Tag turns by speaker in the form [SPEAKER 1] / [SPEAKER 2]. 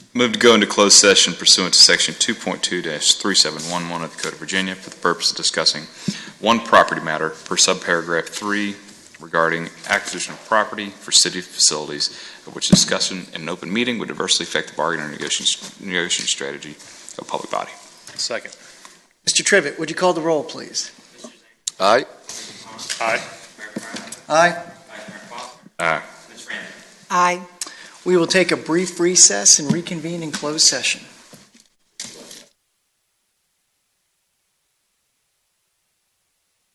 [SPEAKER 1] Move to go into closed session pursuant to Section 2.2-3711 of the Code of Virginia for the purpose of discussing one property matter per subparagraph 3 regarding acquisition of property for city facilities, of which discussion in an open meeting would adversely affect the bargaining or negotiation negotiation strategy of public body.
[SPEAKER 2] Second.
[SPEAKER 3] Mr. Trivett, would you call the roll, please?
[SPEAKER 4] Aye.
[SPEAKER 2] Aye.
[SPEAKER 3] Aye.
[SPEAKER 1] Aye.
[SPEAKER 3] Aye. We will take a brief recess and reconvene in closed session.